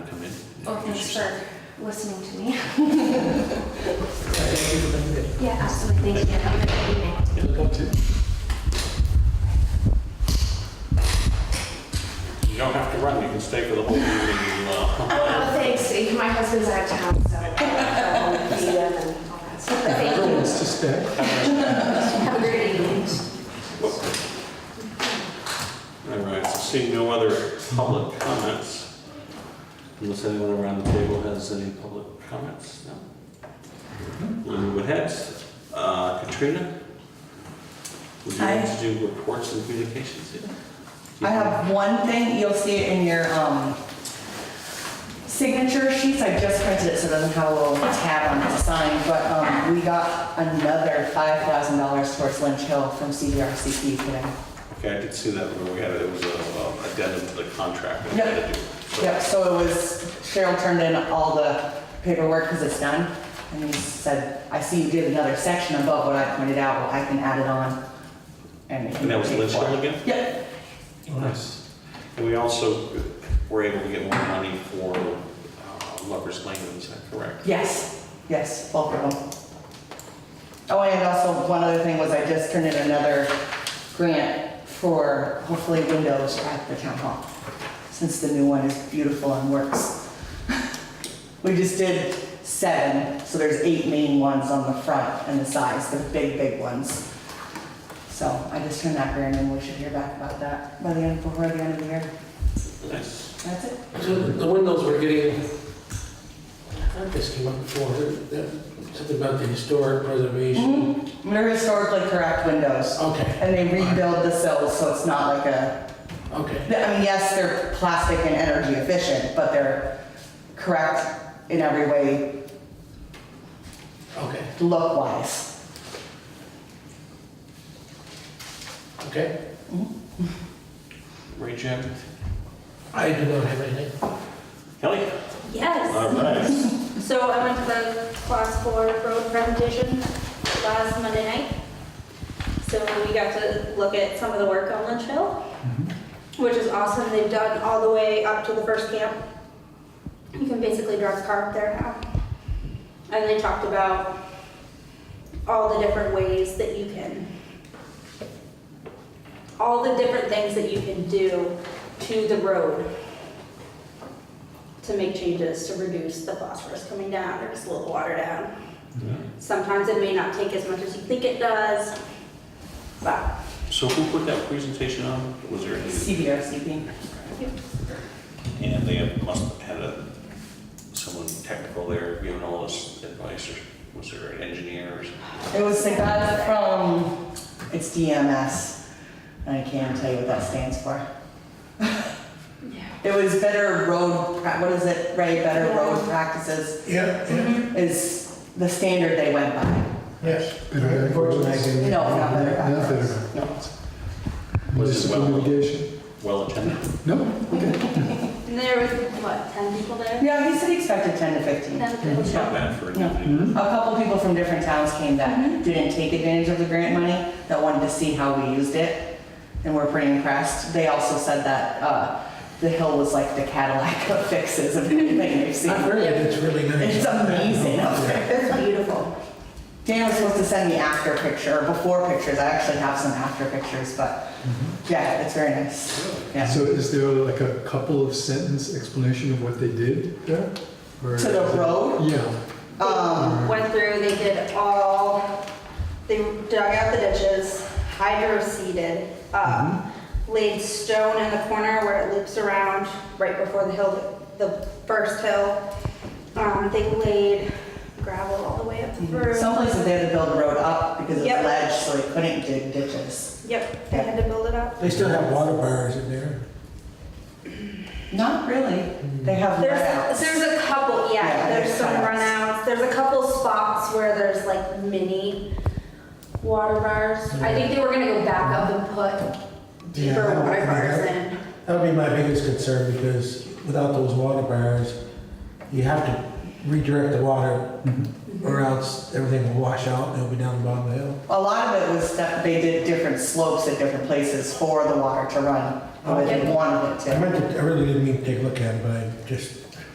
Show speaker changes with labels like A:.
A: Oh, thanks for listening to me.
B: Thank you for being here.
A: Yeah, absolutely. Thank you. Have a good evening.
C: You don't have to run, you can stay for the whole meeting. uh,
A: Oh, thanks. My husband's out of town, so I'll be them and all that stuff. But thank you.
D: Everyone's to stay.
A: Have a great evening.
C: All right, so seeing no other public comments, unless anyone around the table has any public comments, no? We'll move ahead. Uh, Katrina? Would you like to do reports and communications?
B: I have one thing, you'll see it in your um, signature sheets. I just printed it so it doesn't have a little tab on it to sign, but um, we got another $5,000 towards Lynch Hill from CDRCP today.
C: Okay, I did see that when we had it, it was an addendum to the contract. that we
B: Yep.
C: had to do. So-
B: Yep, so it was, Cheryl turned in all the paperwork because it's done. And he said, I see you did another section above what I pointed out, well, I can add it on.
C: And that was Lynch Hill again?
B: Yep,
C: Nice. And we also were able to get more money for uh, Lover's Lane, is that correct?
B: yes, yes, both of them. Oh, and also, one other thing was I just turned in another grant for hopefully windows at the town hall, since the new one is beautiful and works. We just did seven, so there's eight main ones on the front and the sides, the big, big ones. So I just turned that grant in, we should hear back about that by the end, before the end of the year.
C: Nice.
B: That's it.
D: So the windows were getting, I thought this came up before, that- something about the historic preservation.
B: Mhm. They're historically correct windows.
D: Okay,
B: And they rebuild the sills, so it's not like a, I
D: okay.
B: mean, yes, they're plastic and energy efficient, but they're correct in every way,
D: Okay,
B: look-wise.
D: okay.
C: Ray Jim?
D: I do not have anything.
C: Kelly? All
E: Yes.
C: right.
E: So I went to the class four road presentation last Monday night. So we got to look at some of the work on Lynch Hill, which is awesome. They've done all the way up to the first camp. You can basically drive a car up there now. And they talked about all the different ways that you can, all the different things that you can do to the road to make changes to reduce the phosphorus coming down or slow the water down. Sometimes it may not take as much as you think it does, but
C: So who put that presentation on? Was there any?
B: CBRCP.
C: And they must have had a, someone technical there giving all this advice, or was there an engineer or something?
B: It was the guy from, it's DMS, and I can't tell you what that stands for. It was better road, pra- what is it, Ray, better road practices
F: Yeah, yeah,
B: is the standard they went by.
F: yes.
D: Better
F: Unfortunately, I
B: No,
F: didn't-
B: not better
D: Not better.
B: practices. No.
C: Was it
D: Municipal
C: well-
D: litigation.
C: well attended?
D: No?
E: and there was, what, 10 people there?
B: Yeah, he said he expected 10 to 15.
E: Ten people.
C: It's not bad for an
B: No.
C: evening.
B: A couple people from different towns came that didn't take advantage of the grant money, that wanted to see how we used it, and were pretty impressed. They also said that uh, the hill was like the Cadillac of fixes of anything they've seen.
D: Not really, it's really nice.
B: It's amazing up there.
E: It's beautiful.
B: Dan was supposed to send me after picture, or before pictures, I actually have some after pictures, but yeah, it's very nice. Yeah.
F: So is there like a couple of sentence explanation of what they did there? Or-
B: To the road?
F: Yeah,
B: Um,
E: Went through, they did all, they dug out the ditches, hydro seeded, um, laid stone in the corner where it loops around right before the hill, the first hill. Um, They laid gravel all the way up through.
B: Some places they had to build a road up because of
E: Yep.
B: ledge, so they couldn't dig ditches.
E: Yep, they had to build it up.
D: They still have water bars in there.
B: Not really. They have
E: There's,
B: runouts.
E: there's a couple,
B: Yeah,
E: yeah, there's
B: there's
E: some
B: cutouts.
E: runouts, there's a couple spots where there's like mini water bars. I think they were gonna go back up and put
G: Yeah,
E: deeper
G: that would
E: water
G: be
E: bars
G: good.
E: in.
G: That would be my biggest concern because without those water barriers, you have to redirect the water or else everything will wash out and it'll be down the bottom of the hill.
B: A lot of it was that they did different slopes at different places for the water to run. Or they did one of it
G: I
B: too.
G: meant to, I really didn't mean to take a look at it, but I just